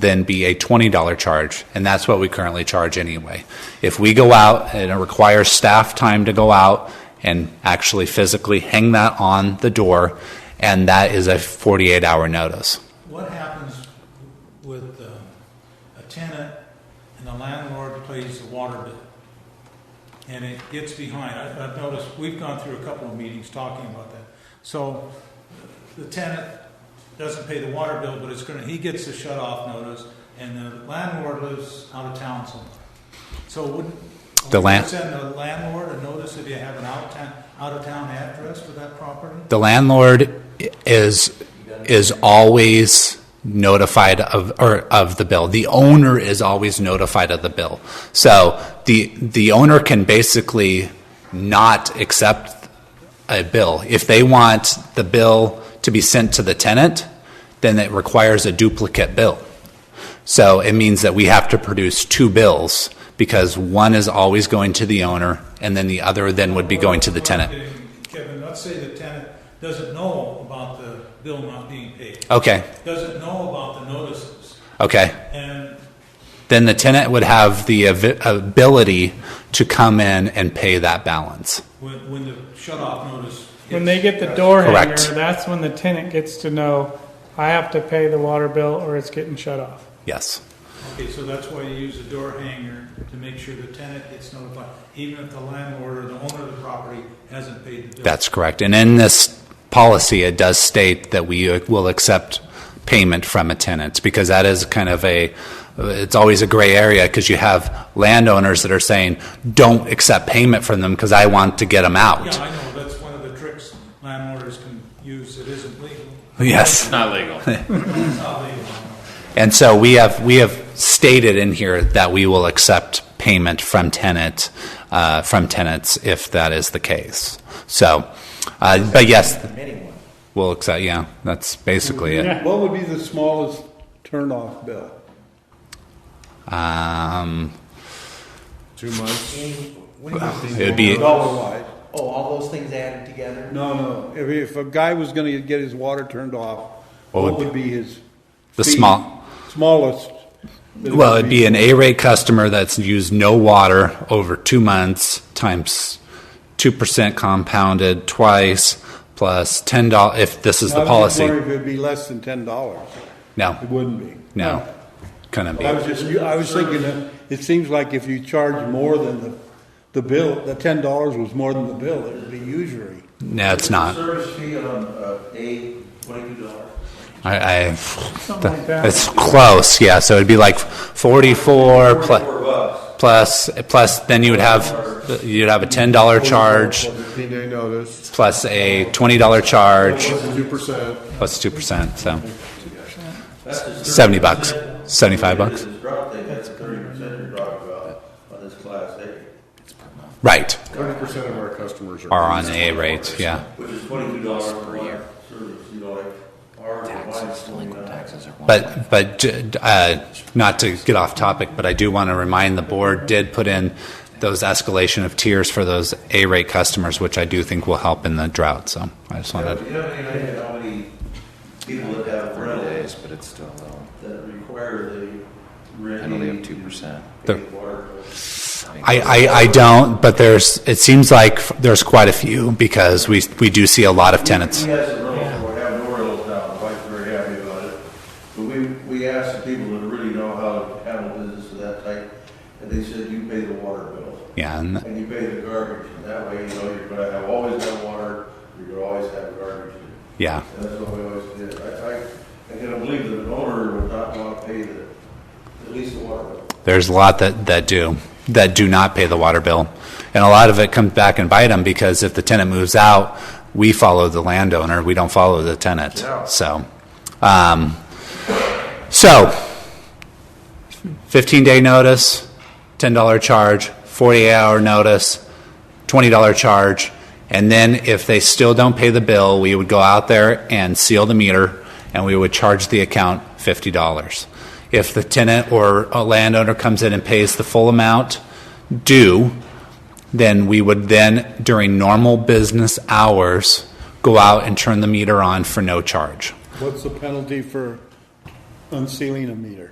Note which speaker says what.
Speaker 1: then be a $20 charge, and that's what we currently charge anyway. If we go out and it requires staff time to go out and actually physically hang that on the door, and that is a 48-hour notice.
Speaker 2: What happens with uh, a tenant and the landlord pays the water bill? And it gets behind. I- I've noticed, we've gone through a couple of meetings talking about that. So the tenant doesn't pay the water bill, but it's gonna, he gets a shut off notice and the landlord lives out of town somewhere. So wouldn't,
Speaker 1: The land-
Speaker 2: would send the landlord a notice if you have an out town, out of town address for that property?
Speaker 1: The landlord is, is always notified of, or of the bill. The owner is always notified of the bill. So the, the owner can basically not accept a bill. If they want the bill to be sent to the tenant, then it requires a duplicate bill. So it means that we have to produce two bills because one is always going to the owner and then the other then would be going to the tenant.
Speaker 2: Kevin, let's say the tenant doesn't know about the bill not being paid,
Speaker 1: Okay,
Speaker 2: doesn't know about the notices,
Speaker 1: okay.
Speaker 2: and
Speaker 1: then the tenant would have the av- ability to come in and pay that balance.
Speaker 2: when, when the shut-off notice. hits-
Speaker 3: When they get the door hanger,
Speaker 1: Correct.
Speaker 3: that's when the tenant gets to know, I have to pay the water bill or it's getting shut off.
Speaker 1: Yes.
Speaker 2: Okay, so that's why you use the door hanger, to make sure the tenant gets notified, even if the landlord or the owner of the property hasn't paid the bill.
Speaker 1: That's correct. And in this policy, it does state that we uh, will accept payment from a tenant because that is kind of a, it's always a gray area because you have landowners that are saying, don't accept payment from them because I want to get them
Speaker 2: Yeah,
Speaker 1: out.
Speaker 2: I know, that's one of the tricks landlords can use, it isn't legal,
Speaker 1: Yes.
Speaker 4: Not legal.
Speaker 2: it's not legal.
Speaker 1: And so we have, we have stated in here that we will accept payment from tenant, uh, from tenants if that is the case. So, uh, but yes, we'll accept, yeah, that's basically it.
Speaker 5: What would be the smallest turn-off bill?
Speaker 1: Um,
Speaker 4: Two months.
Speaker 1: it would be,
Speaker 5: Dollar-wise?
Speaker 6: Oh, all those things added together?
Speaker 5: No, no. If, if a guy was gonna get his water turned off,
Speaker 1: What
Speaker 5: what
Speaker 1: would
Speaker 5: would be his?
Speaker 1: The
Speaker 5: fee?
Speaker 1: small-
Speaker 5: Smallest. that it
Speaker 1: well,
Speaker 5: would
Speaker 1: it'd be an A-rate customer that's used no water over two months times 2% compounded twice plus $10, if this is
Speaker 5: I
Speaker 1: the
Speaker 5: was just
Speaker 1: policy.
Speaker 5: wondering if it'd be less than ten dollars. It
Speaker 1: No,
Speaker 5: wouldn't be.
Speaker 1: no, couldn't be.
Speaker 5: I was just, I was thinking, that it seems like if you charge more than the, the bill, the ten dollars was more than the bill, it would be usury.
Speaker 1: No, it's not.
Speaker 6: Service fee on uh, a twenty-two dollars.
Speaker 1: I, I
Speaker 3: Something like that.
Speaker 1: it's close, yeah. So it'd be like forty-four plus,
Speaker 6: bucks.
Speaker 1: plus, plus. Then you would have you'd have a ten dollar charge
Speaker 4: Fifteen day notice,
Speaker 1: plus a twenty dollar charge
Speaker 4: two percent.
Speaker 1: plus two percent. So seventy bucks, seventy-five bucks.
Speaker 6: This drop thing, that's thirty percent you're talking about on this class A,
Speaker 1: Right,
Speaker 4: Thirty percent of our customers are.
Speaker 1: are on the A rate, yeah.
Speaker 6: which is twenty-two dollars per year. Service, you know, like ours. Taxes, delinquent taxes.
Speaker 1: But, but uh, not to get off topic, but I do want to remind the board did put in those escalation of tiers for those A-rate customers, which I do think will help in the drought. So I just wanted.
Speaker 6: Do you have any idea how many people that have rentals
Speaker 7: but it's still low.
Speaker 6: that require the rent?
Speaker 7: percent.
Speaker 6: to
Speaker 1: The-
Speaker 6: pay water bill?
Speaker 1: I, I, I don't, but there's, it seems like there's quite a few because we, we do see a lot of tenants.
Speaker 6: We had some rentals, we have no rentals now, the wife's very happy about it. But we, we asked the people that really know how to handle business of that type, and they said, you pay the water bill,
Speaker 1: Yeah, and
Speaker 6: and you pay the garbage, and that way, you know, you're gonna have, always have water, you're gonna always have garbage.
Speaker 1: yeah,
Speaker 6: And that's what we always did. I, I, I can believe that an owner would not want to pay the, at least the water bill.
Speaker 1: there's a lot that, that do, that do not pay the water bill. And a lot of it comes back and bite them because if the tenant moves out, we follow the landowner, we don't follow the tenant.
Speaker 6: Yeah.
Speaker 1: So, um, so 15 day notice, $10 charge, 48 hour notice, $20 charge. And then if they still don't pay the bill, we would go out there and seal the meter and we would charge the account $50. If the tenant or a landowner comes in and pays the full amount due, then we would then, during normal business hours, go out and turn the meter on for no charge.
Speaker 5: What's the penalty for unsealing a meter?